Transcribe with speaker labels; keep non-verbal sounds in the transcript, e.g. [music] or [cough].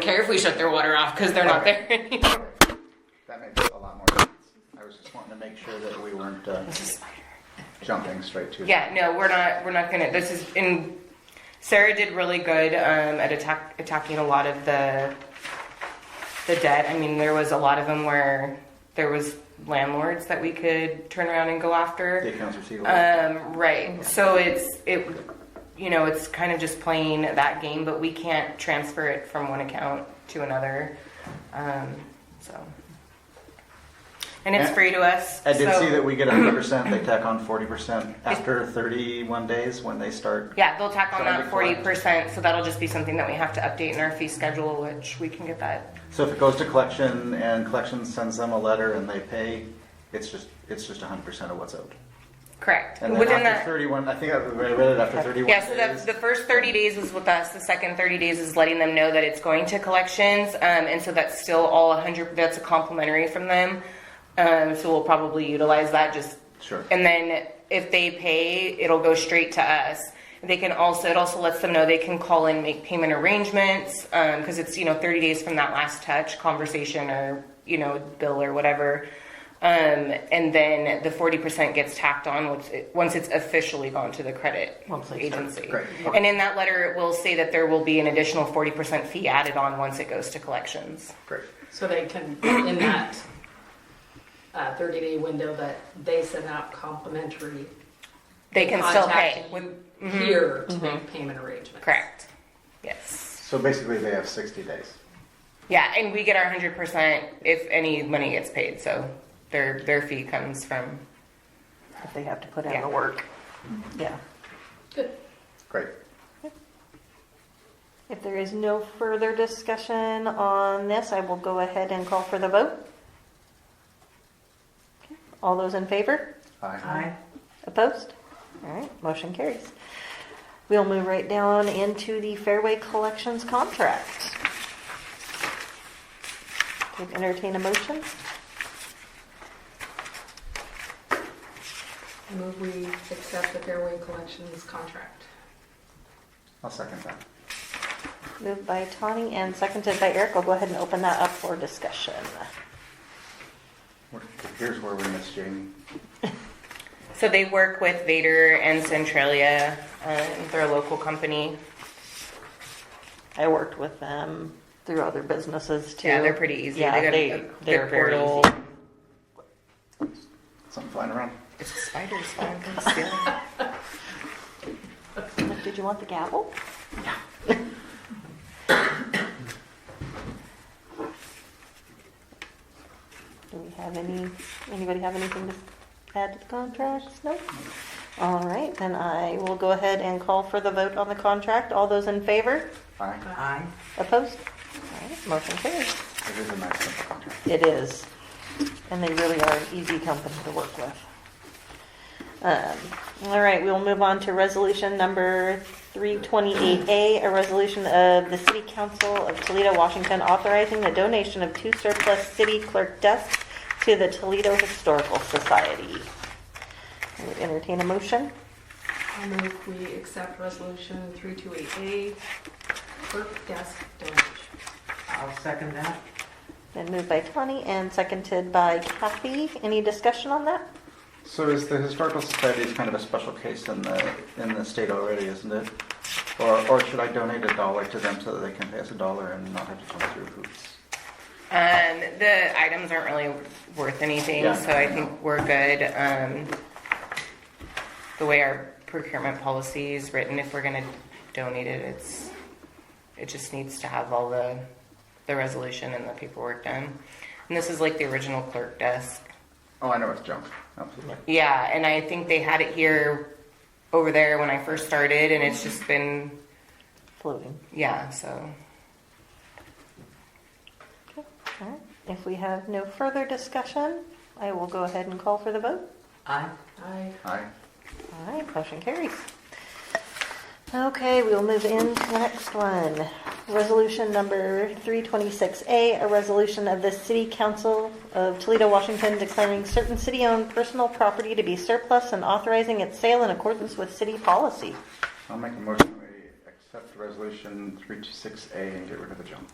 Speaker 1: care if we shut their water off because they're not there [laughs] anymore.
Speaker 2: That makes a lot more sense. I was just wanting to make sure that we weren't uh, jumping straight to.
Speaker 1: Yeah, no, we're not. We're not gonna. This is in. Sarah did really good um, at attack, attacking a lot of the the debt. I mean, there was a lot of them where there was landlords that we could turn around and go after.
Speaker 2: The accounts receivable.
Speaker 1: Um, right. So it's it, you know, it's kind of just playing that game, but we can't transfer it from one account to another. Um, so, and it's
Speaker 2: Yeah.
Speaker 1: free to us.
Speaker 2: I did
Speaker 1: so-
Speaker 2: see that we get 100%, they tack on 40% after 31 days when they start.
Speaker 1: Yeah, they'll tack on
Speaker 2: That'll
Speaker 1: that
Speaker 2: be
Speaker 1: forty
Speaker 2: correct.
Speaker 1: percent, so that'll just be something that we have to update in our fee schedule, which we can get that.
Speaker 2: So if it goes to collection and collection sends them a letter and they pay, it's just, it's just 100% of what's owed.
Speaker 1: Correct.
Speaker 2: And then
Speaker 1: Within
Speaker 2: after
Speaker 1: that,
Speaker 2: 31, I think I read it after 31
Speaker 1: Yeah, so the, the
Speaker 2: days.
Speaker 1: first 30 days was with us. The second 30 days is letting them know that it's going to collections. Um, and so that's still all 100, that's a complimentary from them. Um, so we'll probably utilize that just.
Speaker 2: Sure.
Speaker 1: And then if they pay, it'll go straight to us. They can also, it also lets them know they can call and make payment arrangements because it's, you know, 30 days from that last touch conversation or, you know, bill or whatever. Um, and then the 40% gets tacked on once, it, once it's officially gone to the credit
Speaker 3: Once it's-
Speaker 1: agency.
Speaker 2: Great.
Speaker 1: And in that letter, it will say that there will be an additional 40% fee added on once it goes to collections.
Speaker 2: Great.
Speaker 3: So they can, in that uh, 30 day window that they send out complimentary.
Speaker 1: They can still pay.
Speaker 3: contact
Speaker 1: With, mm-hmm.
Speaker 3: you Here to make payment arrangements.
Speaker 1: correct. Yes.
Speaker 2: So basically they have 60 days.
Speaker 1: Yeah, and we get our 100% if any money gets paid. So their their fee comes from
Speaker 4: if they have to put
Speaker 1: Yeah.
Speaker 4: in the work. Yeah.
Speaker 3: Good.
Speaker 2: Great.
Speaker 4: If there is no further discussion on this, I will go ahead and call for the vote. Okay. All those in favor?
Speaker 2: Aye.
Speaker 4: Opposed? All right, motion carries. We'll move right down into the Fairway Collections contract. Would entertain a motion?
Speaker 3: Move we accept the Fairway Collections contract.
Speaker 2: I'll second that.
Speaker 4: Moved by Tawny and seconded by Eric. I'll go ahead and open that up for discussion.
Speaker 2: We're- Here's where we miss Jamie.
Speaker 1: So they work with Vader and Centralia. Um, they're a local company.
Speaker 4: I worked with them through other businesses too.
Speaker 1: Yeah, they're pretty easy.
Speaker 4: Yeah,
Speaker 1: they got
Speaker 4: they,
Speaker 1: a,
Speaker 4: they're
Speaker 1: their
Speaker 4: very
Speaker 1: portal.
Speaker 4: easy.
Speaker 2: Something flying around.
Speaker 1: It's a spider, so I'm gonna steal it.
Speaker 4: Like, Did you want the gavel?
Speaker 1: [coughs]
Speaker 4: Do we have any, anybody have anything to add to the contracts? No? All right, then I will go ahead and call for the vote on the contract. All those in favor?
Speaker 2: Aye.
Speaker 3: Aye.
Speaker 4: Opposed? All right, motion carries.
Speaker 2: It is a nice simple contract.
Speaker 4: It is. And they really are an easy company to work with. Um, All right, we'll move on to resolution number 328A, a resolution of the City Council of Toledo, Washington, authorizing the donation of two surplus city clerk desks to the Toledo Historical Society. I would Entertain a motion?
Speaker 3: I move we accept resolution 328A, clerk desk donation.
Speaker 5: I'll second that.
Speaker 4: Been moved by Tawny and seconded by Kathy. Any discussion on that?
Speaker 2: So is the historical society is kind of a special case in the in the state already, isn't it? Or or should I donate a dollar to them so that they can pay us a dollar and not have to jump through hoops?
Speaker 1: Um, the items aren't really worth anything,
Speaker 2: Yeah.
Speaker 1: so I think we're good. Um, the way our procurement policy is written, if we're gonna donate it, it's, it just needs to have all the, the resolution and the paperwork done. And this is like the original clerk desk.
Speaker 2: Oh, I know it's junk. Absolutely.
Speaker 1: Yeah, and I think they had it here over there when I first started, and it's just been,
Speaker 4: Floating.
Speaker 1: yeah, so.
Speaker 4: Okay, all right. If we have no further discussion, I will go ahead and call for the vote.
Speaker 5: Aye.
Speaker 3: Aye.
Speaker 2: Aye.
Speaker 4: All right, motion carries. Okay, we'll move into the next one. Resolution number 326A, a resolution of the City Council of Toledo, Washington declaring certain city-owned personal property to be surplus and authorizing its sale in accordance with city policy.
Speaker 2: I'll make a motion we accept resolution 326A and get rid of the junk.